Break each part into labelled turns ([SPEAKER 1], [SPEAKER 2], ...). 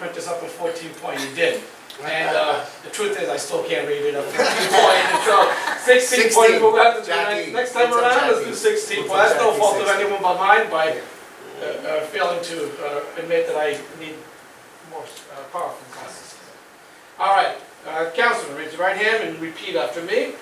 [SPEAKER 1] put this up with fourteen point, you did. And, uh, the truth is, I still can't read it up to fourteen point, and so sixteen point, we'll have to do
[SPEAKER 2] Jackie,
[SPEAKER 1] next, next time
[SPEAKER 2] it's a
[SPEAKER 1] around, let's do
[SPEAKER 2] Jackie.
[SPEAKER 1] sixteen.
[SPEAKER 2] It's
[SPEAKER 1] Well,
[SPEAKER 2] a
[SPEAKER 1] that's no
[SPEAKER 2] Jackie
[SPEAKER 1] fault of
[SPEAKER 2] 16.
[SPEAKER 1] anyone but mine by uh, uh, failing to uh, admit that I need more uh, power from classes. All right, uh, Councilman, raise your right hand and repeat after me.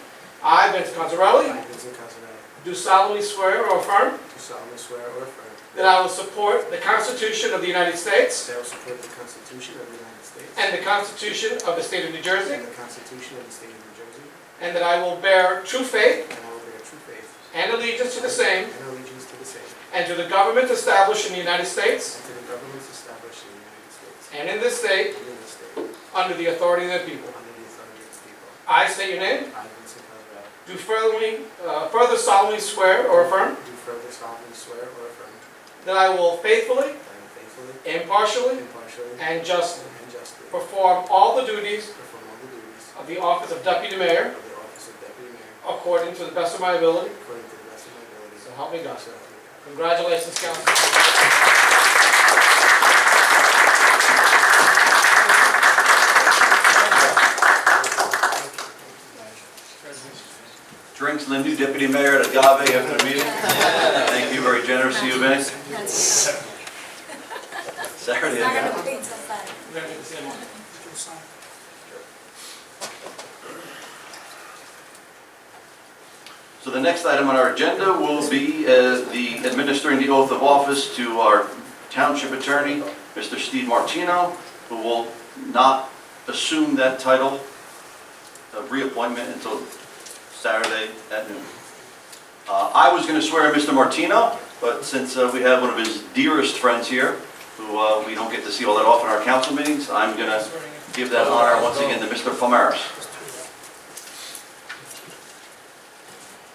[SPEAKER 1] I, Vince Gonzarelli,
[SPEAKER 2] I, Vincent Cozzarelli,
[SPEAKER 1] do solemnly swear or affirm
[SPEAKER 2] do solemnly swear or affirm
[SPEAKER 1] that I will support the Constitution of the United States
[SPEAKER 2] that I will support the Constitution of the United States
[SPEAKER 1] and the Constitution of the State of New Jersey,
[SPEAKER 2] and the Constitution of the State of New Jersey,
[SPEAKER 1] and that I will bear true faith
[SPEAKER 2] and I will bear true faith
[SPEAKER 1] and allegiance to the same
[SPEAKER 2] and allegiance to the same,
[SPEAKER 1] and to the government established in the United States
[SPEAKER 2] and to the governments established in the United States
[SPEAKER 1] and in this state
[SPEAKER 2] and in this state,
[SPEAKER 1] under the authority of the people.
[SPEAKER 2] under the authority of the people.
[SPEAKER 1] I state your name,
[SPEAKER 2] I, Vincent Cozzarelli,
[SPEAKER 1] do furtherly, uh, further solemnly swear or affirm
[SPEAKER 2] do further solemnly swear or affirm
[SPEAKER 1] That I will faithfully,
[SPEAKER 2] that I will faithfully,
[SPEAKER 1] impartially,
[SPEAKER 2] impartially,
[SPEAKER 1] and justly
[SPEAKER 2] and justly
[SPEAKER 1] perform all the duties
[SPEAKER 2] perform all the duties
[SPEAKER 1] of the office of deputy mayor
[SPEAKER 2] of the office of Deputy Mayor
[SPEAKER 1] according to the best of my ability.
[SPEAKER 2] according to the best of my ability.
[SPEAKER 1] So help me God.
[SPEAKER 2] So help me God.
[SPEAKER 1] Congratulations, Council.
[SPEAKER 3] Drinks and the new deputy mayor at Agave after the meeting. Thank you, very generous of you, Vince. Saturday.
[SPEAKER 4] Not
[SPEAKER 3] Agave.
[SPEAKER 4] gonna wait till Saturday.
[SPEAKER 1] We're gonna do the same one.
[SPEAKER 3] So the next item on our agenda will be uh, the administering the oath of office to our township attorney, Mr. Steve Martino, who will not assume that title of reappointment until Saturday at noon. Uh, I was going to swear in Mr. Martino, but since uh, we have one of his dearest friends here, who uh, we don't get to see all that often in our council meetings, I'm going to
[SPEAKER 1] Swearing in.
[SPEAKER 3] give that honor once again to Mr. Palmaris.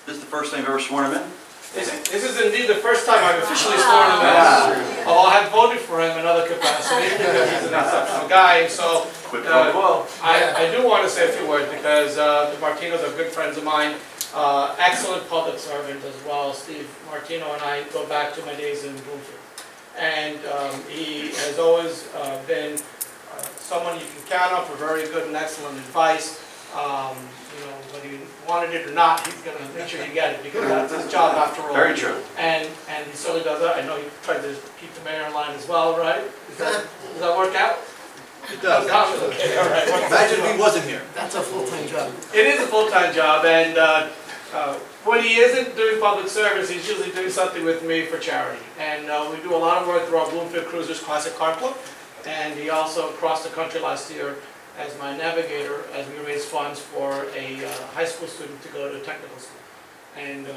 [SPEAKER 3] This is the first time I've ever sworn him in.
[SPEAKER 1] This this is indeed the first time I've officially sworn him in. Although I had voted for him in other capacities because he's an exceptional guy, so
[SPEAKER 3] Quick
[SPEAKER 1] Uh,
[SPEAKER 3] vote.
[SPEAKER 1] Well, I, I do want to say a few words because uh, the Martinos are good friends of mine, uh, excellent public servant as well. Steve Martino and I go back to my days in Bloomfield. And um, he has always uh, been uh, someone you can count on for very good and excellent advice. Um, You know, whether you wanted it or not, he's going to make sure you get it because that's his job after all.
[SPEAKER 3] Very true.
[SPEAKER 1] And, and he certainly does that. I know he tried to keep the mayor in line as well, right? Does that, does that work out? It does. Okay, all right.
[SPEAKER 5] Imagine if he wasn't here.
[SPEAKER 2] That's a full-time job.
[SPEAKER 1] It is a full-time job, and uh, uh, when he isn't doing public service, he's usually doing something with me for charity. And uh, we do a lot of work through our Bloomfield Cruisers Classic Car Club, and he also crossed the country last year as my navigator as we raised funds for a uh, high school student to go to technical school. And, uh,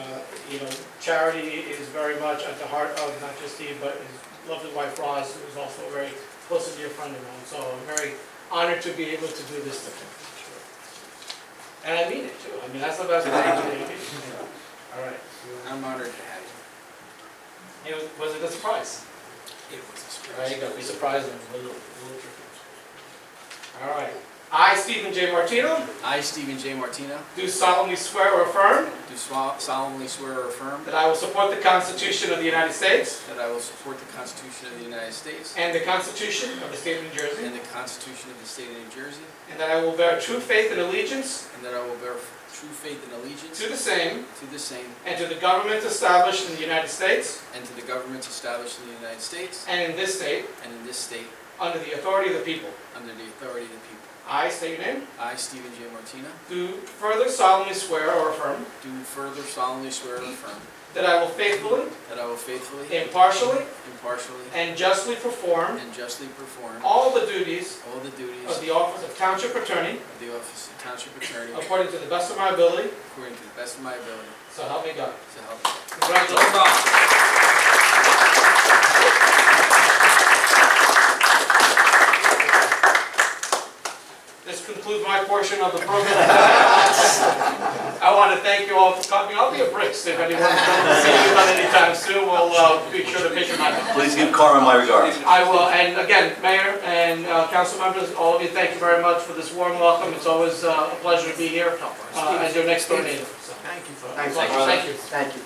[SPEAKER 1] you know, charity is very much at the heart of not just Steve, but his lovely wife Roz, who is also a very close to dear friend of mine. So I'm very honored to be able to do this to him. And I mean it too. I mean, that's the best part. I mean, All right.
[SPEAKER 5] I'm honored to have you.
[SPEAKER 1] It was, was it a surprise?
[SPEAKER 5] It was a
[SPEAKER 1] All right, you
[SPEAKER 5] surprise.
[SPEAKER 1] gotta be surprised and a little, a little tricky. All right. I, Stephen J. Martino,
[SPEAKER 5] I, Stephen J. Martino,
[SPEAKER 1] do solemnly swear or affirm
[SPEAKER 5] do swa- solemnly swear or affirm
[SPEAKER 1] that I will support the Constitution of the United States
[SPEAKER 5] that I will support the Constitution of the United States
[SPEAKER 1] and the Constitution of the State of New Jersey,
[SPEAKER 5] and the Constitution of the State of New Jersey,
[SPEAKER 1] and that I will bear true faith and allegiance
[SPEAKER 5] and that I will bear true faith and allegiance
[SPEAKER 1] to the same
[SPEAKER 5] to the same
[SPEAKER 1] and to the government established in the United States
[SPEAKER 5] and to the governments established in the United States
[SPEAKER 1] and in this state
[SPEAKER 5] and in this state
[SPEAKER 1] under the authority of the people.
[SPEAKER 5] under the authority of the people.
[SPEAKER 1] I state your name.
[SPEAKER 5] I, Stephen J. Martino,
[SPEAKER 1] Do further solemnly swear or affirm
[SPEAKER 5] do further solemnly swear or affirm
[SPEAKER 1] That I will faithfully,
[SPEAKER 5] that I will faithfully,
[SPEAKER 1] impartially,
[SPEAKER 5] impartially,
[SPEAKER 1] and justly perform
[SPEAKER 5] and justly perform
[SPEAKER 1] all the duties
[SPEAKER 5] all the duties
[SPEAKER 1] of the office of Township Attorney
[SPEAKER 5] of the office of Township Attorney
[SPEAKER 1] according to the best of my ability,
[SPEAKER 5] according to the best of my ability,
[SPEAKER 1] so help me God.
[SPEAKER 5] so help me.
[SPEAKER 1] Congratulations. This concludes my portion of the program. I want to thank you all for coming. I'll be a brisk if anyone wants to see me anytime soon. We'll uh, be sure to pick your mind.
[SPEAKER 3] Please give Carmen my regards.
[SPEAKER 1] I will, and again, Mayor and uh, council members, all of you, thank you very much for this warm welcome. It's always uh, a pleasure to be here uh, as your next door neighbor. So,
[SPEAKER 2] Thank you for.
[SPEAKER 1] Thank you, thank you.
[SPEAKER 2] Thank you.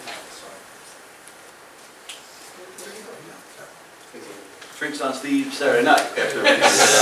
[SPEAKER 3] Drinks on Steve Saturday night after.